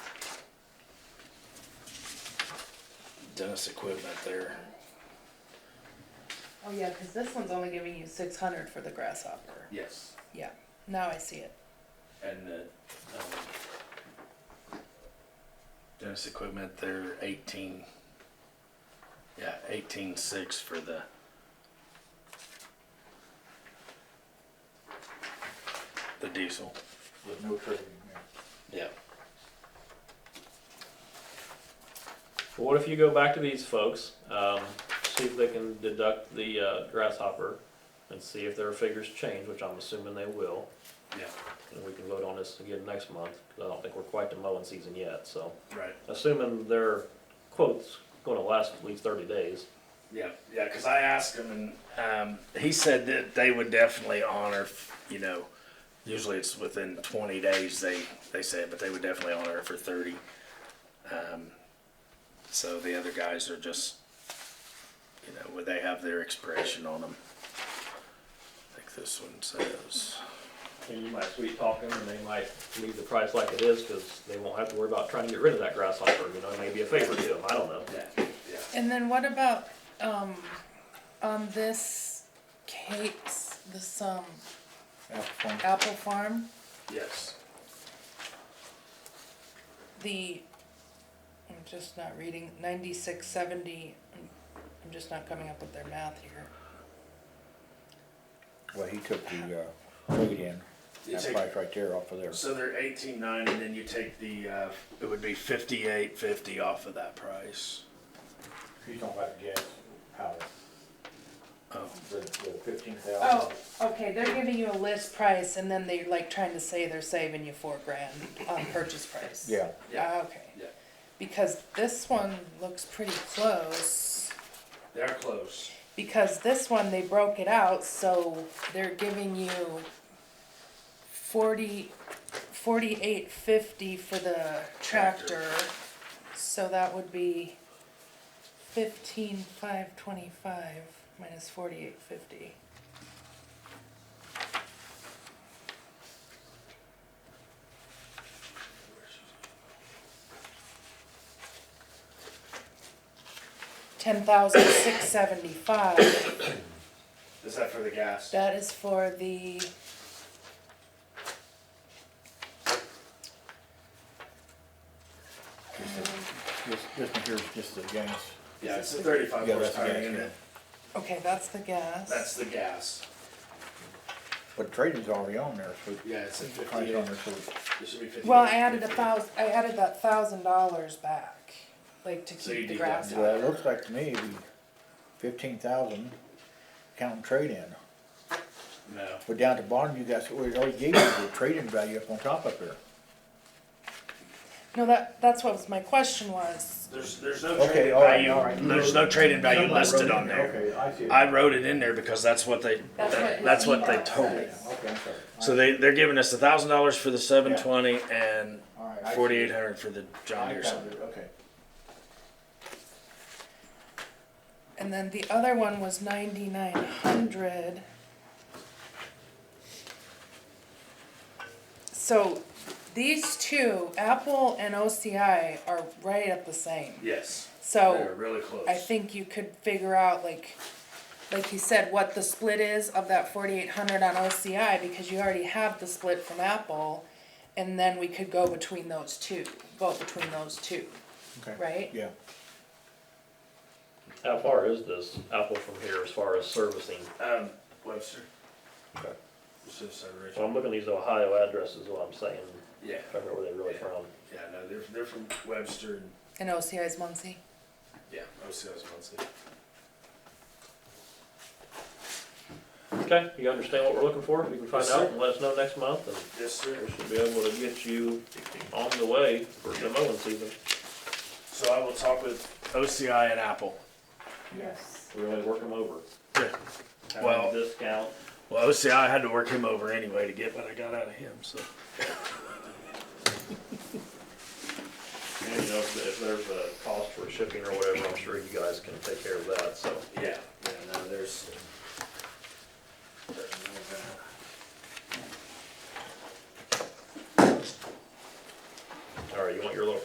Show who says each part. Speaker 1: tennis equipment there.
Speaker 2: Oh, yeah, cause this one's only giving you six hundred for the grasshopper.
Speaker 1: Yes.
Speaker 2: Yeah, now I see it.
Speaker 1: And the, um, tennis equipment there, eighteen, yeah, eighteen-six for the, the diesel.
Speaker 3: with no trade in there.
Speaker 1: Yeah.
Speaker 4: Well, what if you go back to these folks, um, see if they can deduct the uh, grasshopper and see if their figures change, which I'm assuming they will.
Speaker 1: Yeah,
Speaker 4: And we can vote on this again next month, 'cause I don't think we're quite to mowing season yet, so.
Speaker 1: right.
Speaker 4: Assuming their quote's gonna last at least thirty days.
Speaker 1: Yeah, yeah, because I asked him, and um, he said that they would definitely honor. You know, usually it's within 20 days they they say, it, but they would definitely honor it for 30. Um, so the other guys are just, you know, would they have their expiration on them? I think this one says.
Speaker 4: And you might sweet talk them and they might leave the price like it is, cause they won't have to worry about trying to get rid of that grasshopper, you know, it may be a favor to them, I don't know.
Speaker 1: Yeah, yeah.
Speaker 2: And then what about, um, on this cakes, this, um,
Speaker 3: Apple farm.
Speaker 2: apple farm,
Speaker 1: Yes.
Speaker 2: the, I'm just not reading, ninety-six seventy, I'm just not coming up with their math here.
Speaker 3: Well, he took the, uh, weight in,
Speaker 1: You
Speaker 3: that
Speaker 1: take-
Speaker 3: price right there off of there.
Speaker 1: So they're 18.9, and then you take the. Uh, it would be 58.50 off of that price.
Speaker 3: He's talking about the gas power,
Speaker 1: Oh.
Speaker 3: the, the fifteen
Speaker 2: Oh,
Speaker 3: thousand.
Speaker 2: okay, they're giving you a list price and then they're like trying to say they're saving you four grand on purchase price.
Speaker 3: Yeah,
Speaker 2: Ah, Okay,
Speaker 1: Yeah.
Speaker 2: because this one looks pretty close,
Speaker 1: They're close.
Speaker 2: because this one, they broke it out, so they're giving you forty, forty-eight fifty for the tractor, so that would be fifteen five twenty-five minus forty-eight fifty. Ten thousand six seventy-five.
Speaker 1: Is that for the gas?
Speaker 2: That is for the.
Speaker 3: this, this one here's just the gas.
Speaker 1: Yeah, it's a thirty-five
Speaker 3: Yeah, that's the
Speaker 1: horsepower
Speaker 3: gas, yeah.
Speaker 1: unit.
Speaker 2: Okay, that's the gas.
Speaker 1: That's the gas.
Speaker 3: But trading's already on there, so.
Speaker 1: Yeah, it's a
Speaker 3: it's probably
Speaker 1: fifty.
Speaker 3: on there, so
Speaker 1: It should be fifty.
Speaker 2: Well, I added a thousand. I added that thousand dollars back, like to
Speaker 1: So you
Speaker 2: keep the
Speaker 1: deduct
Speaker 2: grass.
Speaker 1: that.
Speaker 3: Well, it looks like to me, it'd be fifteen thousand, counting trade-in.
Speaker 1: No,
Speaker 3: But down at the bottom, you guys, we already gave you the trade-in value up on top up there.
Speaker 2: No, that that's what was my question was.
Speaker 1: there's, there's no
Speaker 3: Okay,
Speaker 1: trade-in
Speaker 3: all right,
Speaker 1: value,
Speaker 3: all right.
Speaker 1: there's no trade-in value
Speaker 3: Somebody wrote
Speaker 1: listed
Speaker 3: it
Speaker 1: on
Speaker 3: down.
Speaker 1: there.
Speaker 3: Okay, I see. it.
Speaker 1: I wrote it in there because that's what they,
Speaker 2: That's what
Speaker 1: that's what they
Speaker 2: Lee
Speaker 1: told me.
Speaker 2: said.
Speaker 3: Okay, I'm sorry.
Speaker 1: So they, they're giving us a thousand dollars for the seven twenty and
Speaker 3: All right, I see.
Speaker 1: forty-eight hundred for the John
Speaker 3: I
Speaker 1: Deere
Speaker 3: found
Speaker 1: something.
Speaker 3: it, okay.
Speaker 2: And then the other one was ninety nine hundred. So, these two, Apple and OCI, are right up the same.
Speaker 1: Yes,
Speaker 2: So.
Speaker 1: they're really close.
Speaker 2: Oh, I think you could figure out like, like you said, what the split is of that forty-eight hundred on OCI, because you already have the split from Apple. And then we could go between those two, vote between those two,
Speaker 3: Okay.
Speaker 2: right?
Speaker 3: Yeah,
Speaker 4: How far is this apple from here as far as servicing?
Speaker 1: Um, Webster.
Speaker 4: Okay.
Speaker 1: So sorry, Rich.
Speaker 4: So I'm looking at these Ohio addresses, is what I'm saying,
Speaker 1: Yeah,
Speaker 4: I don't know where they're really from.
Speaker 1: yeah, no, they're, they're from Webster and,
Speaker 2: And OCI is Muncie.
Speaker 1: yeah, OCS Muncie.
Speaker 4: Okay, you understand what we're looking for, you can find
Speaker 1: Yes,
Speaker 4: out
Speaker 1: sir.
Speaker 4: and let us know next month, and
Speaker 1: Yes, sir.
Speaker 4: we should be able to get you on the way for the mowing season.
Speaker 1: So I will talk with OCI and Apple.
Speaker 2: Yes.
Speaker 4: We Really work them over. Have a
Speaker 1: Well-
Speaker 4: Discount,
Speaker 1: Well, OCI I had to work him over anyway to get what I got out of him, so.
Speaker 4: and you know, if if there's a cost for shipping or whatever, I'm sure you guys can take care of that, so.
Speaker 1: Yeah, yeah, no, there's, uh,